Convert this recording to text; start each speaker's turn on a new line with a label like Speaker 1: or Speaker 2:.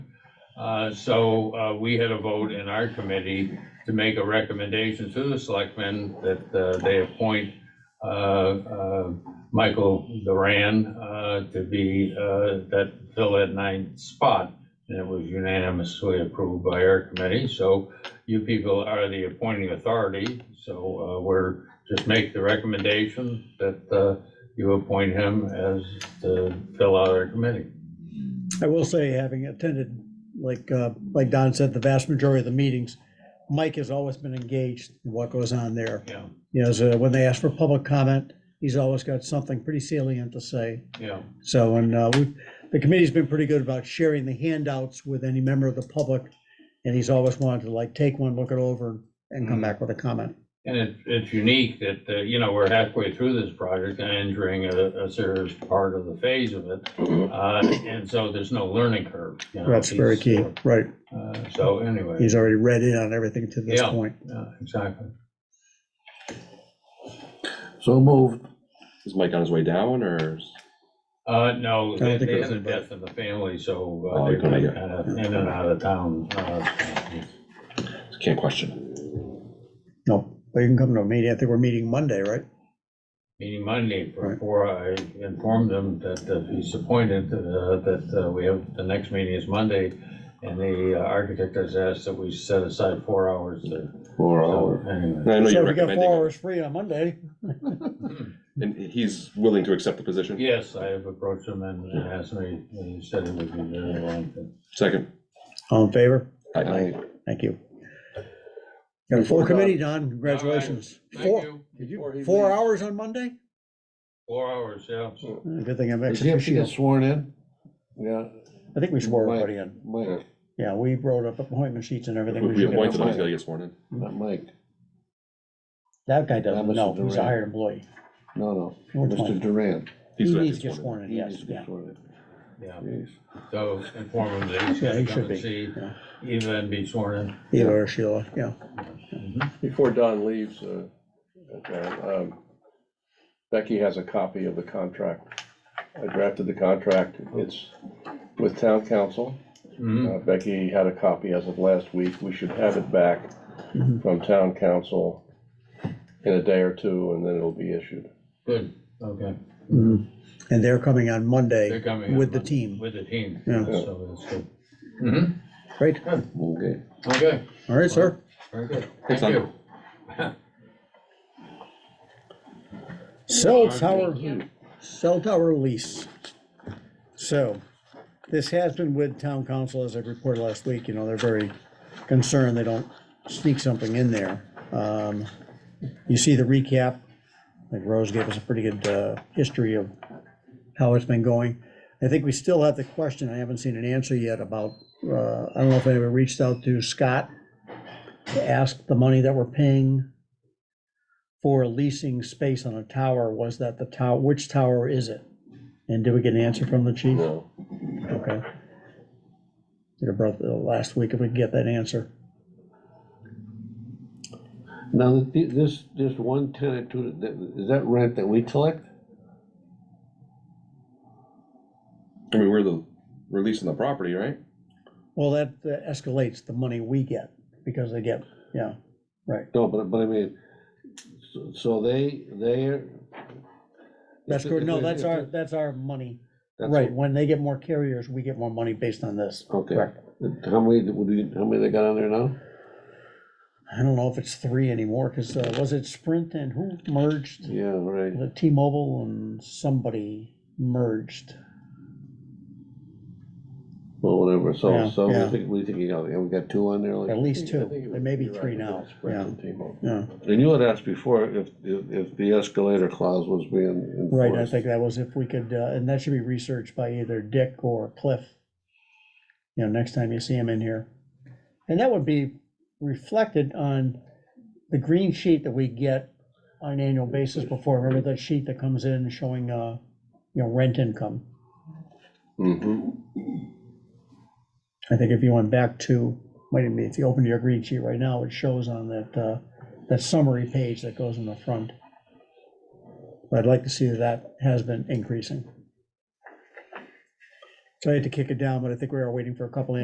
Speaker 1: Uh, so, uh, we had a vote in our committee to make a recommendation to the selectmen that, uh, they appoint, uh, uh, Michael Duran, uh, to be, uh, that, fill that ninth spot. And it was unanimously approved by our committee, so you people are the appointing authority, so, uh, we're, just make the recommendation that, uh, you appoint him as to fill out our committee.
Speaker 2: I will say, having attended, like, uh, like Don said, the vast majority of the meetings, Mike has always been engaged in what goes on there.
Speaker 1: Yeah,
Speaker 2: You know, so when they ask for public comment, he's always got something pretty salient to say.
Speaker 1: yeah,
Speaker 2: So, and uh, we- the committee's been pretty good about sharing the handouts with any member of the public, and he's always wanted to like take one, look it over, and
Speaker 1: Mm.
Speaker 2: come back with a comment.
Speaker 1: and it, it's unique that, uh, you know, we're halfway through this project and entering a, a serious part of the phase of it.
Speaker 3: Mm-hmm.
Speaker 1: Uh, and so there's no learning curve. you know,
Speaker 2: That's very
Speaker 1: he's,
Speaker 2: key, right?
Speaker 1: uh, So anyway,
Speaker 2: He's already read in on everything to this
Speaker 1: Yeah.
Speaker 2: point.
Speaker 1: uh, exactly.
Speaker 4: So moved.
Speaker 3: Is Mike on his way down or? is-
Speaker 1: Uh, no,
Speaker 2: don't
Speaker 1: they,
Speaker 2: think
Speaker 1: they
Speaker 2: it
Speaker 1: had a
Speaker 2: was
Speaker 1: death in the family, so
Speaker 3: Oh,
Speaker 1: uh, they're
Speaker 3: okay,
Speaker 1: kind
Speaker 3: yeah.
Speaker 1: of in and out of town. uh,
Speaker 3: Can't question.
Speaker 2: No, but you can come to a meeting. I think we're meeting Monday, right?
Speaker 1: Meeting Monday
Speaker 2: Right.
Speaker 1: before I informed them that uh, he's appointed, uh, that uh, we have, the next meeting is Monday. And the uh, architect has asked that we set aside four hours there.
Speaker 3: Four
Speaker 1: So anyway.
Speaker 3: I know
Speaker 2: So
Speaker 3: you're
Speaker 2: we got four
Speaker 3: recommending,
Speaker 2: hours free on Monday.
Speaker 3: and he's willing to accept the position?
Speaker 1: Yes, I have approached him and and asked me, and he said it would be very long.
Speaker 3: Second.
Speaker 2: All in favor?
Speaker 3: Aye, aye.
Speaker 2: Thank you. Got a full committee, Don, congratulations. Four, did you-
Speaker 4: Before he
Speaker 2: four
Speaker 4: leaves.
Speaker 2: hours on Monday?
Speaker 1: Four hours, yeah.
Speaker 2: Uh, Good thing I'm
Speaker 4: Does he have to
Speaker 2: actually,
Speaker 4: get sworn in? Yeah,
Speaker 2: I think we swore
Speaker 4: Mike.
Speaker 2: everybody in.
Speaker 4: Mike,
Speaker 2: Yeah, we wrote up appointment sheets and everything.
Speaker 3: If
Speaker 2: We
Speaker 3: we
Speaker 2: should-
Speaker 3: appoint someone, he's gotta get sworn in.
Speaker 4: not Mike.
Speaker 2: That guy doesn't
Speaker 4: Not Mr.
Speaker 2: know, he's a
Speaker 4: Duran.
Speaker 2: hired employee.
Speaker 4: No, no,
Speaker 2: Which
Speaker 4: Mr.
Speaker 2: one?
Speaker 4: Duran.
Speaker 2: He
Speaker 3: He's gonna
Speaker 2: needs to
Speaker 3: get
Speaker 2: get
Speaker 3: sworn
Speaker 2: sworn in,
Speaker 4: He
Speaker 2: yes,
Speaker 4: needs to get
Speaker 2: yeah.
Speaker 4: sworn
Speaker 1: Yeah,
Speaker 4: in. Jeez.
Speaker 1: so inform him that he's
Speaker 2: Yeah, he
Speaker 1: gonna
Speaker 2: should
Speaker 1: come
Speaker 2: be,
Speaker 1: and see
Speaker 2: yeah.
Speaker 1: Eva and be sworn
Speaker 2: Either or Sheila, yeah.
Speaker 4: Before Don leaves, uh, uh, um, Becky has a copy of the contract. I drafted the contract. It's with town council.
Speaker 1: in. Mhm.
Speaker 4: Uh, Becky had a copy as of last week. We should have it back from town council in a day or two, and then it'll be issued.
Speaker 1: Good, okay.
Speaker 4: Mm-hmm.
Speaker 2: Mhm. And they're coming on
Speaker 1: They're
Speaker 2: Monday
Speaker 1: coming. on
Speaker 2: with the
Speaker 1: Monday.
Speaker 2: team.
Speaker 1: With the team,
Speaker 2: Yeah.
Speaker 1: so that's good. Mhm.
Speaker 2: Great,
Speaker 3: Okay.
Speaker 1: Okay,
Speaker 2: all right, sir.
Speaker 1: very good.
Speaker 3: Thanks,
Speaker 1: Thank
Speaker 3: Tom.
Speaker 1: you.
Speaker 2: Cell tower, cell tower lease. So, this has been with town council, as I reported last week, you know, they're very concerned they don't sneak something in there. Um, You see the recap, like Rose gave us a pretty good uh, history of how it's been going. I think we still have the question, I haven't seen an answer yet about, uh, I don't know if anybody reached out to Scott to ask the money that we're paying for leasing space on a tower was that the tower, which tower is it? And did we get an answer from the chief?
Speaker 3: No.
Speaker 2: Okay. Should have brought the last week if we could get that answer.
Speaker 4: Now, th- this, this one tenant, to- that- is that rent that we collect?
Speaker 3: I mean, we're the, we're leasing the property, right?
Speaker 2: Well, that uh, escalates the money we get because they get, yeah,
Speaker 4: No, but, but I mean, so- so they, they're.
Speaker 2: that's good. No, that's our, that's our money. Right, when they get more carriers, we get more money based on this.
Speaker 4: Okay.
Speaker 2: Correct.
Speaker 4: How many, would we, how many they got on there now?
Speaker 2: I don't know if it's three anymore, because was it Sprint and who merged?
Speaker 4: Yeah, right.
Speaker 2: The T-Mobile and somebody merged.
Speaker 4: Well, whatever,
Speaker 2: Yeah,
Speaker 4: so, so
Speaker 2: yeah.
Speaker 4: we think, we think, you got, we got two on there, like.
Speaker 2: At least
Speaker 4: I think- I
Speaker 2: two.
Speaker 4: think it
Speaker 2: There may be
Speaker 4: was- you're
Speaker 2: three
Speaker 4: right,
Speaker 2: now,
Speaker 4: Sprint
Speaker 2: yeah.
Speaker 4: and T-Mobile.
Speaker 2: Yeah,
Speaker 4: And you had asked before if, if, if the escalator clause was being enforced.
Speaker 2: right, I think that was if we could, uh, and that should be researched by either Dick or Cliff. You know, next time you see him in here. And that would be reflected on the green sheet that we get on an annual basis before, remember that sheet that comes in showing, uh, you know, rent income?
Speaker 4: Mhm.
Speaker 2: I think if you went back to, wait a minute, if you open your green sheet right now, it shows on that, uh, that summary page that goes in the front. But I'd like to see that that has been increasing. So I had to kick it down, but I think we are waiting for a couple of